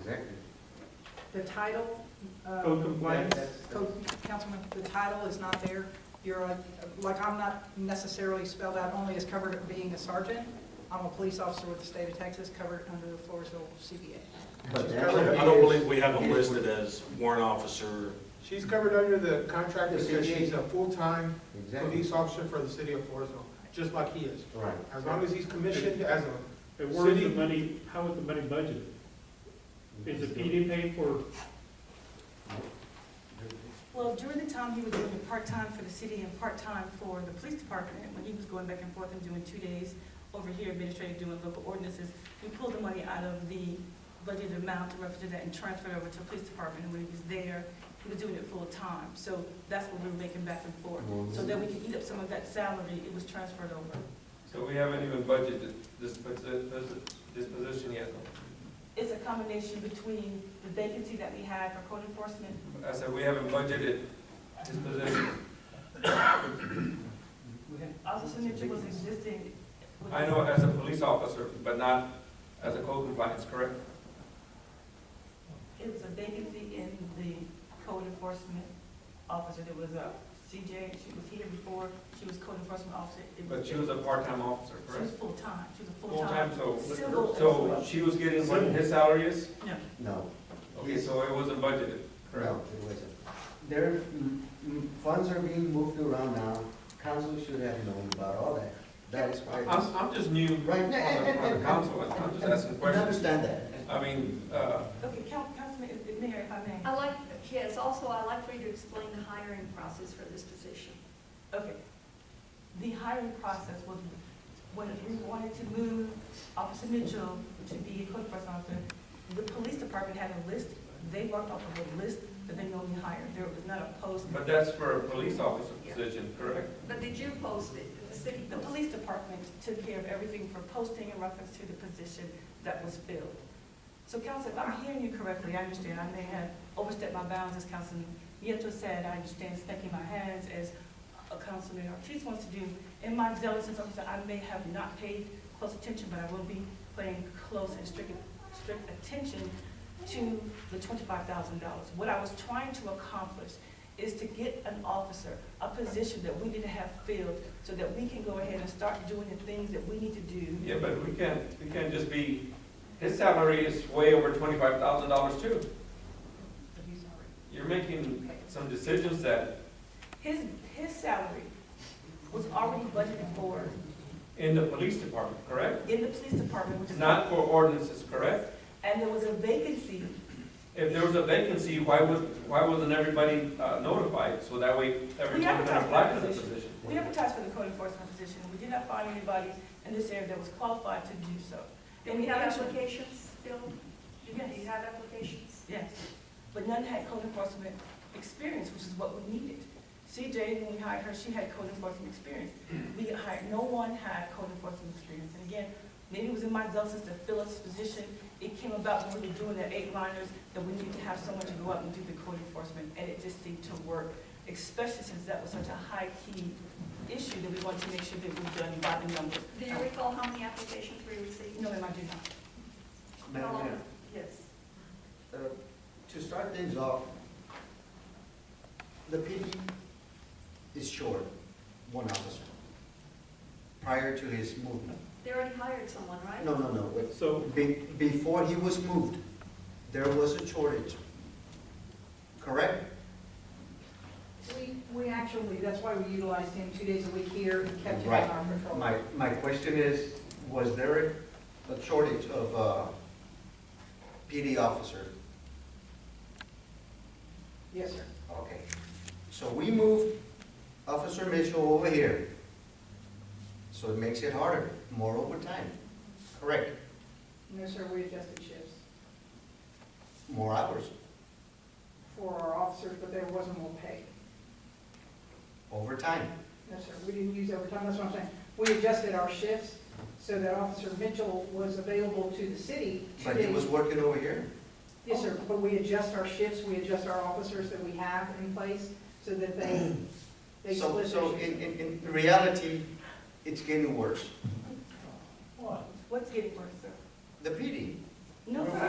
executive. The title, uh, Code compliance? That's- that's- Code- Councilman, the title is not there. You're, a- like, I'm not necessarily spelled out only as covered as being a sergeant. I'm a police officer with the state of Texas, covered under the Floresville CBA. But She's that's covered what I it don't is. believe we have them It is listed as warrant officer. She's covered under the contract The because CBA. she's a full-time Exactly, police officer for the city of Floresville, just like he is. right. As long as he's commissioned as a, And where is the City- money, how is the money budgeted? Is the PD paid for, Well, during the time he was doing it part-time for the city and part-time for the police department, when he was going back and forth and doing two days over here administrative doing local ordinances, we pulled the money out of the budgeted amount to represent that and transferred over to the police department. And when he was there, he was doing it full-time. So that's what we were making back and forth. So that we could eat up some of that salary, it was transferred over. So we haven't even budgeted this, posi- this, this position yet. It's a combination between the vacancy that we had for code enforcement I said we haven't budgeted this position. Officer Mitchell was existing. with- I know as a police officer, but not as a code compliance, correct? It was a vacancy in the code enforcement officer. There was a CJ, she was here before, she was code enforcement officer. It But she was a part-time officer, She was correct? full-time, she was a full-time. Full-time, so, Civil as so well. she was getting what his salary is? No, No. Okay, so it wasn't budgeted, correct? No, it wasn't. There, mm, mm, funds are being moved around now, council should have known about all that. That is why. it's- I'm, I'm just new on the, Right, on and- and- the and- council, and I'm just asking And questions. Understand that. I mean, uh, Okay, Coun- Councilman, if- if Mayor, if I may. I like, yes, also i like for you to explain the hiring process for this position. Okay. The hiring process was, when we wanted to move Officer Mitchell to be a code enforcement officer, the police department had a list, they worked off of a list that they normally hired. There was not a post. but that's for a police officer position, correct? But did you post it, Did the city The post it? police department took care of everything for posting in reference to the position that was filled. So council, if I'm hearing you correctly, I understand, I may have overstepped my bounds as Councilman Nieto said, I understand spanking my hands as a Councilman Ortiz wants to do. In my zealous as officer, I may have not paid close attention, but I will be paying close and strict, strict attention to the twenty-five thousand dollars. What I was trying to accomplish is to get an officer, a position that we need to have filled, so that we can go ahead and start doing the things that we need to do. Yeah, but we can't, we can't just be, his salary is way over twenty-five thousand dollars too. You're making some decisions that, His, his salary was already budgeted for in the police department, correct? in the police department, which is. Not for ordinances, correct? And there was a vacancy, If there was a vacancy, why was, why wasn't everybody uh, notified? So that way, everyone can advertised apply for that the position. position. we advertised for the code enforcement position, we did not find anybody in this area that was qualified to do so. Do we have applications still? Do you- Do Yes. you have applications? Yes, but none had code enforcement experience, which is what we needed. CJ, when we hired her, she had code enforcement experience. We hired, no one had code enforcement experience. And again, maybe it was in my zealousness to fill this position. It came about when we were doing the eight liners, that we needed to have someone to go out and do the code enforcement, and it just seemed to work, especially since that was such a high-key issue that we wanted to make sure that we done by the numbers. Do you recall how many applications we received? No, ma'am, I do not. How Madam long? Mayor. Yes. Uh, To start things off, the PD is short one officer prior to his movement. They already hired someone, right? No, no, no, wait. so, Be- Before he was moved, there was a shortage, correct? We, we actually, that's why we utilized him two days a week here and kept him Right. on our patrol. My, my question is, was there a shortage of uh, PD officers? Yes, sir. Okay, so we moved Officer Mitchell over here. So it makes it harder, more overtime, correct, No, sir, we adjusted shifts more hours, for our officers, but there wasn't more pay. overtime. No, sir, we didn't use overtime, that's what I'm saying. We adjusted our shifts so that Officer Mitchell was available to the city. two But he days- was working over here, Yes, sir, but we adjust our shifts, we adjust our officers that we have in place so that they, they so, split their so shifts. in, in, in reality, it's getting worse. What's getting worse, sir? The PD, No, sir.